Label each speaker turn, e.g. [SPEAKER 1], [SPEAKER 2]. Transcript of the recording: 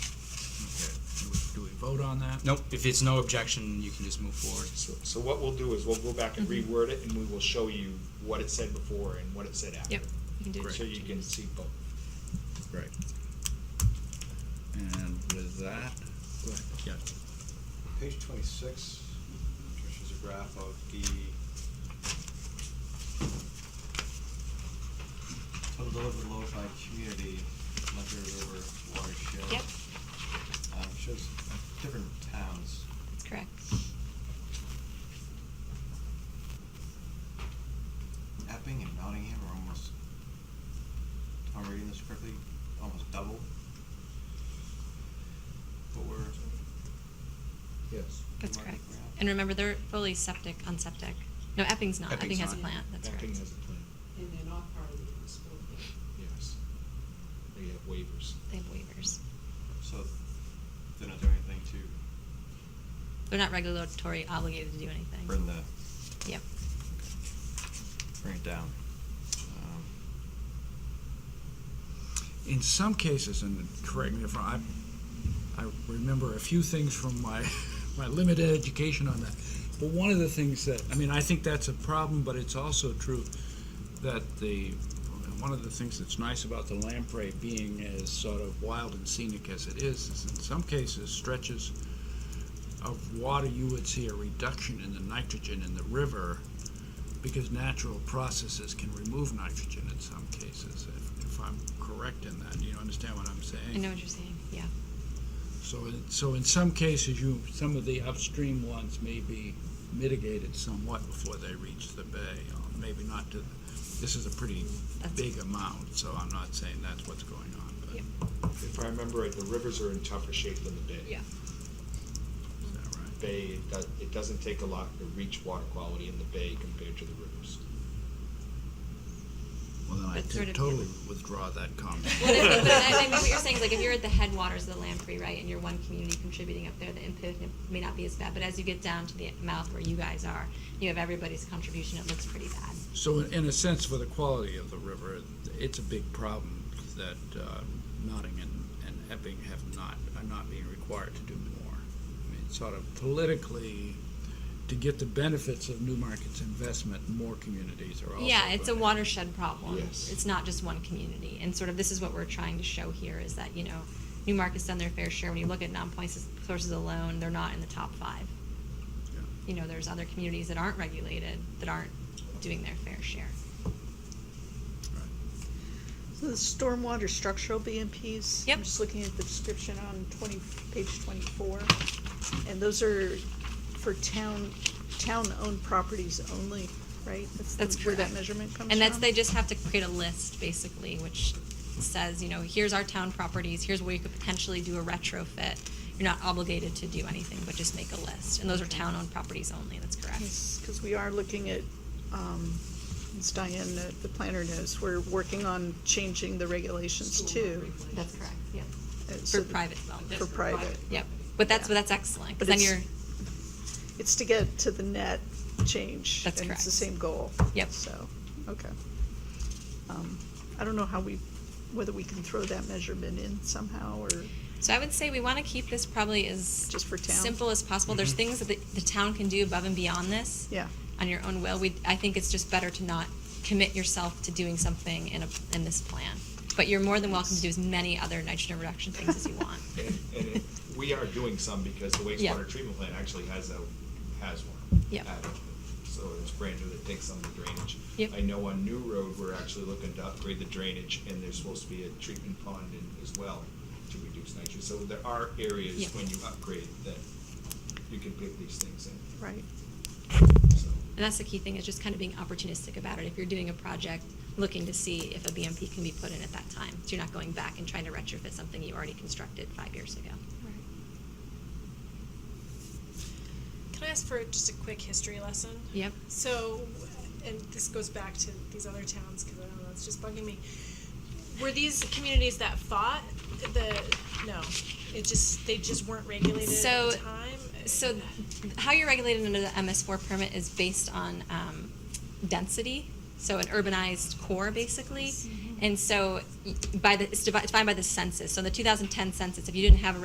[SPEAKER 1] vote on that?
[SPEAKER 2] Nope, if it's no objection, you can just move forward.
[SPEAKER 3] So, so what we'll do is we'll go back and
[SPEAKER 4] Mm-hmm.
[SPEAKER 3] reword it, and we will show you what it said before and what it said after.
[SPEAKER 4] Yep, you can do
[SPEAKER 3] So you can see both.
[SPEAKER 5] Right. And with that, go ahead.
[SPEAKER 2] Yeah.
[SPEAKER 6] Page twenty-six, Trish, is a graph of the total delivered load by community, Ledger River watershed.
[SPEAKER 4] Yep.
[SPEAKER 6] Um, shows different towns.
[SPEAKER 4] Correct.
[SPEAKER 6] Epping and Nottingham are almost, if I'm reading this correctly, almost double what we're.
[SPEAKER 3] Yes.
[SPEAKER 4] That's
[SPEAKER 6] what we're
[SPEAKER 4] correct.
[SPEAKER 6] at.
[SPEAKER 4] And remember, they're fully septic on septic. No, Epping's not. Epping
[SPEAKER 2] Epping's
[SPEAKER 4] has a
[SPEAKER 2] not.
[SPEAKER 4] plant. That's correct.
[SPEAKER 3] Acting as a plan,
[SPEAKER 7] And they're not part of the municipal thing.
[SPEAKER 3] yes. They have waivers.
[SPEAKER 4] They have waivers.
[SPEAKER 6] So they're not doing anything to
[SPEAKER 4] They're not regulatory obligated to do anything.
[SPEAKER 6] burn the
[SPEAKER 4] Yep.
[SPEAKER 6] bring it down. Um,
[SPEAKER 5] in some cases, and correct me if I'm, I remember a few things from my, my limited education on that. But one of the things that, I mean, I think that's a problem, but it's also true that the, one of the things that's nice about the lamprey being as sort of wild and scenic as it is, is in some cases stretches of water, you would see a reduction in the nitrogen in the river because natural processes can remove nitrogen in some cases, if, if I'm correct in that. You understand what I'm saying?
[SPEAKER 4] I know what you're saying. Yeah.
[SPEAKER 5] So, in- so in some cases, you, some of the upstream ones may be mitigated somewhat before they reach the bay. or Maybe not to, this is a pretty
[SPEAKER 4] That's-
[SPEAKER 5] big amount, so I'm not saying that's what's going on, but
[SPEAKER 4] Yep.
[SPEAKER 3] If I remember right, the rivers are in tougher shape than the bay.
[SPEAKER 5] is that right?
[SPEAKER 3] Bay, it does, it doesn't take a lot to reach water quality in the bay compared to the rivers.
[SPEAKER 5] Well, then I
[SPEAKER 4] But sort
[SPEAKER 5] t-
[SPEAKER 4] of-
[SPEAKER 5] totally withdraw that comment.
[SPEAKER 4] Well, I think- but I I mean, what you're saying is like if you're at the headwaters of the Lamprey, right, and you're one community contributing up there, the impact may not be as bad. But as you get down to the mouth where you guys are, you have everybody's contribution. It looks pretty bad.
[SPEAKER 5] So in, in a sense, for the quality of the river, it's a big problem that uh, Nottingham and Epping have not, are not being required to do more. I mean, sort of politically, to get the benefits of Newmarket's investment, more communities are also.
[SPEAKER 4] Yeah, it's a
[SPEAKER 5] going to-
[SPEAKER 4] watershed problem.
[SPEAKER 3] Yes.
[SPEAKER 4] It's not just one community. And sort of this is what we're trying to show here is that, you know, Newmarket's done their fair share. When you look at non-point s- sources alone, they're not in the top five.
[SPEAKER 5] Yeah.
[SPEAKER 4] You know, there's other communities that aren't regulated, that aren't doing their fair share.
[SPEAKER 8] So the stormwater structural BMPs?
[SPEAKER 4] Yep.
[SPEAKER 8] I'm just looking at the description on twenty, page twenty-four. And those are for town, town-owned properties only, right? the-
[SPEAKER 4] That's
[SPEAKER 8] Where that
[SPEAKER 4] correct.
[SPEAKER 8] measurement comes from?
[SPEAKER 4] And that's, they just have to create a list basically, which says, you know, here's our town properties, here's where you could potentially do a retrofit. You're not obligated to do anything, but just make a list. And those are town-owned properties only, that's correct.
[SPEAKER 8] Because we are looking at, um, as Diane, uh, the planner knows, we're working on changing the regulations
[SPEAKER 7] Stormwater
[SPEAKER 8] too.
[SPEAKER 7] regulations.
[SPEAKER 4] That's correct, yep.
[SPEAKER 8] uh, so
[SPEAKER 4] For
[SPEAKER 8] that-
[SPEAKER 4] private development.
[SPEAKER 8] For private.
[SPEAKER 4] Yep, but that's,
[SPEAKER 8] Yeah.
[SPEAKER 4] but that's excellent,
[SPEAKER 8] But
[SPEAKER 4] because then you're,
[SPEAKER 8] it's- It's to get to the net change.
[SPEAKER 4] That's
[SPEAKER 8] And it's the
[SPEAKER 4] correct.
[SPEAKER 8] same goal.
[SPEAKER 4] Yep.
[SPEAKER 8] So, okay. Um, I don't know how we, whether we can throw that measurement in somehow, or,
[SPEAKER 4] so I would say we want to keep this probably as.
[SPEAKER 8] Just for town.
[SPEAKER 4] Simple as possible.
[SPEAKER 3] Mm-hmm.
[SPEAKER 4] There's things that the, the town can do above and beyond this.
[SPEAKER 8] yeah.
[SPEAKER 4] On your own will. We, I think it's just better to not commit yourself to doing something in a, in this plan. But you're more than welcome to do as many other nitrogen reduction things as you want.
[SPEAKER 3] And, and it- we are doing some because the
[SPEAKER 4] Yeah.
[SPEAKER 3] wastewater treatment plant actually has a, has one.
[SPEAKER 4] Yep.
[SPEAKER 3] Had one. So it's brand new that takes some of the drainage.
[SPEAKER 4] Yep.
[SPEAKER 3] I know on New Road, we're actually looking to upgrade the drainage and there's supposed to be a treatment pond in as well to reduce nitrogen. So there are areas
[SPEAKER 4] Yep.
[SPEAKER 3] when you upgrade that you can pick these things in,
[SPEAKER 8] Right.
[SPEAKER 3] so.
[SPEAKER 4] And that's the key thing, is just kind of being opportunistic about it. If you're doing a project, looking to see if a BMP can be put in at that time. So you're not going back and trying to retrofit something you already constructed five years ago.
[SPEAKER 9] Can I ask for just a quick history lesson?
[SPEAKER 4] Yep.
[SPEAKER 9] So, and this goes back to these other towns because I don't know, it's just bugging me. Were these communities that fought the, no, it just, they just weren't regulated
[SPEAKER 4] So-
[SPEAKER 9] at the time?
[SPEAKER 4] So th- how you're regulated under the MS4 permit is based on um, density, so an urbanized core basically. And so y- by the, it's devi- defined by the census. So in the 2010 census, if you didn't have a